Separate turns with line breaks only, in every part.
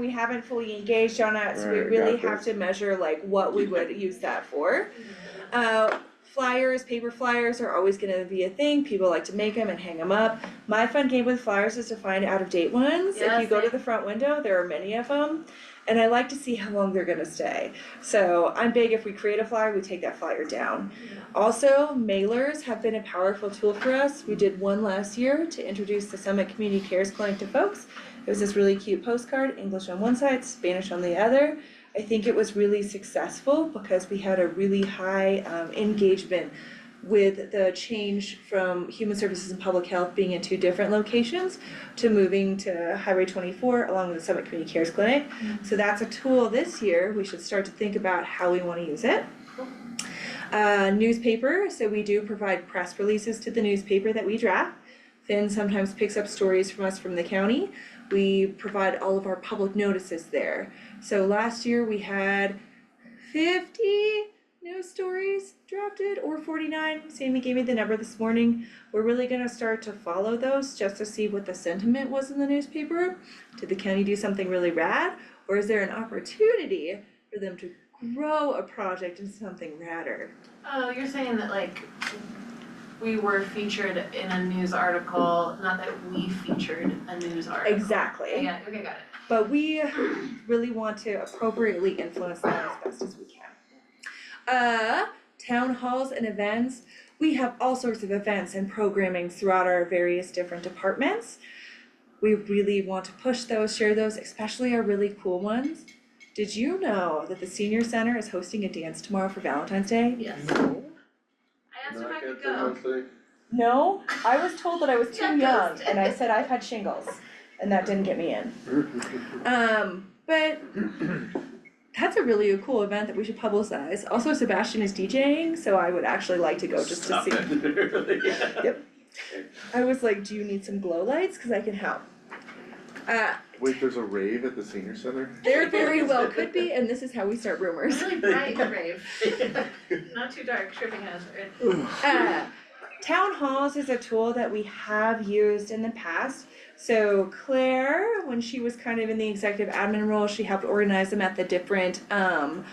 we haven't fully engaged on it, so we
Right,
really
got
have to measure like what we would use that for. Uh, flyers, paper flyers are always gonna be a thing, people like to make them and hang them up. My fun game with flyers is to find out of date ones, if you
Yes,
go to
I-
the front window, there are many of them. And I like to see how long they're gonna stay, so I'm big, if we create a flyer, we take that flyer down. Also, mailers have been a powerful tool for us, we did one last year to introduce the Summit Community Cares Clinic to folks. It was this really cute postcard, English on one side, Spanish on the other. I think it was really successful because we had a really high um, engagement with the change from human services and public health being in two different locations to moving to Highway twenty-four along with the Summit Community Cares Clinic. So that's a tool this year, we should start to think about how we wanna use it. Uh, newspaper, so we do provide press releases to the newspaper that we draft. Finn sometimes picks up stories from us from the county. We provide all of our public notices there. So last year we had fifty news stories drafted or forty-nine. Sammy gave me the number this morning. We're really gonna start to follow those just to see what the sentiment was in the newspaper. Did the county do something really rad? Or is there an opportunity for them to grow a project into something radder?
Oh, you're saying that like we were featured in a news article, not that we featured a news article.
Exactly.
Yeah, okay, got it.
But we really want to appropriately influence them as best as we can. Uh, town halls and events. We have all sorts of events and programming throughout our various different departments. We really want to push those, share those, especially our really cool ones. Did you know that the senior center is hosting a dance tomorrow for Valentine's Day?
Yes. I asked if I
Knock
could
it
go.
down, see?
No, I was told that I was too
Yeah,
young
ghost.
and I said I've had shingles and that didn't get me in. Um, but that's a really cool event that we should publicize. Also, Sebastian is DJing, so I would actually like to go just to
Stop
see.
it, literally.
I was like, do you need some glow lights? Cause I can help. Uh,
Wait, there's a rave at the senior center?
there very well could be, and this is how we start rumors.
Really bright rave. Not too dark, tripping hazard.
Uh, town halls is a tool that we have used in the past. So Claire, when she was kind of in the executive admin role, she helped organize them at the different um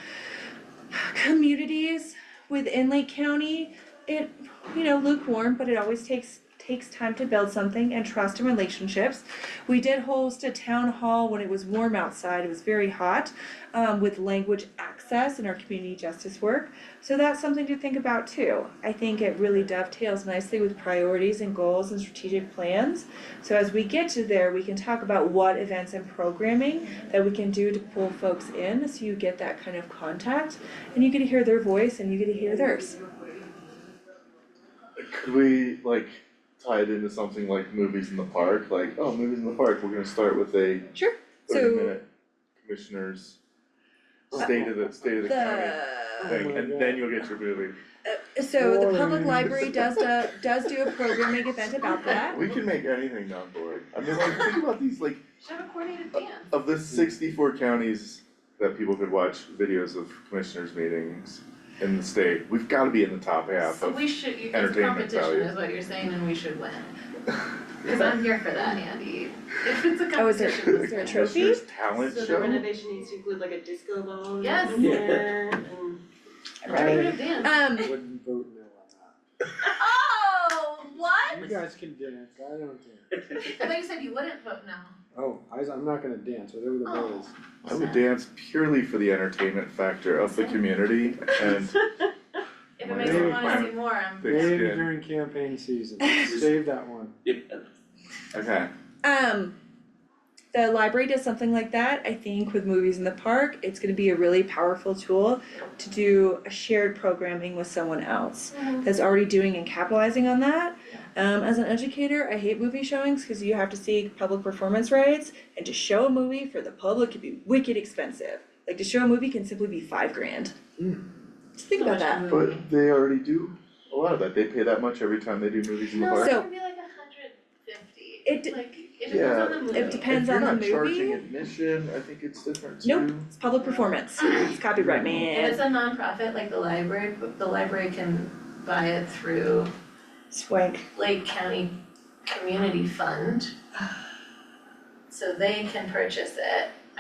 communities within Lake County. It, you know, lukewarm, but it always takes takes time to build something and trust and relationships. We did host a town hall when it was warm outside. It was very hot um, with language access and our community justice work. So that's something to think about too. I think it really dovetails nicely with priorities and goals and strategic plans. So as we get to there, we can talk about what events and programming that we can do to pull folks in so you get that kind of contact and you get to hear their voice and you get to hear theirs.
Could we like tie it into something like movies in the park, like, oh, movies in the park, we're gonna start with a
Sure.
thirty
So
minute commissioners state of the, state of the county
the
thing,
my
and then you'll get your movie.
so the public
Boring.
library does do, does do a programming event about that.
We can make anything non boring, I mean, like, think about these, like,
Should have a coordinated dance.
of the sixty-four counties that people could watch videos of commissioners meetings in the state, we've gotta be in the top half
So
of.
we should, you- it's
entertainment
competition
value.
is what you're saying and we should win. Cause I'm here for that, Andy. If it's a
Oh, is there-
competition,
is there a
The
trophy?
commissioners talent
So the
show,
renovation needs to include like a disco ball in
Yes.
there and.
competitive dance.
Um
Wouldn't vote no on
Oh, what?
that. You guys can dance, I don't dance.
I thought you said you wouldn't vote no.
Oh, I was, I'm not gonna dance, whatever the vote is.
I would dance purely for the entertainment factor of the community and
If it makes me wanna see more, I'm.
Thick
Maybe
skin.
during campaign season, save that one.
Okay,
Um, the library does something like that. I think with movies in the park, it's going to be a really powerful tool to do a shared programming with someone else that's already doing and capitalizing on that. Um, as an educator, I hate movie showings because you have to see public performance rights, and to show a movie for the public could be wicked expensive. Like to show a movie can simply be five grand. Just think about that.
but they already do a lot of that, they pay that much every time they do movies in the
No,
park.
it's
So-
gonna be like a hundred fifty,
It d-
like, it
Yeah,
depends on the movie.
It depends on the movie.
If you're not charging admission, I think it's different too.
Nope. It's public performance. It's copyright, man.
If it's a nonprofit like the library, but the library can buy it through
Swank.
Lake County Community Fund. So they can purchase it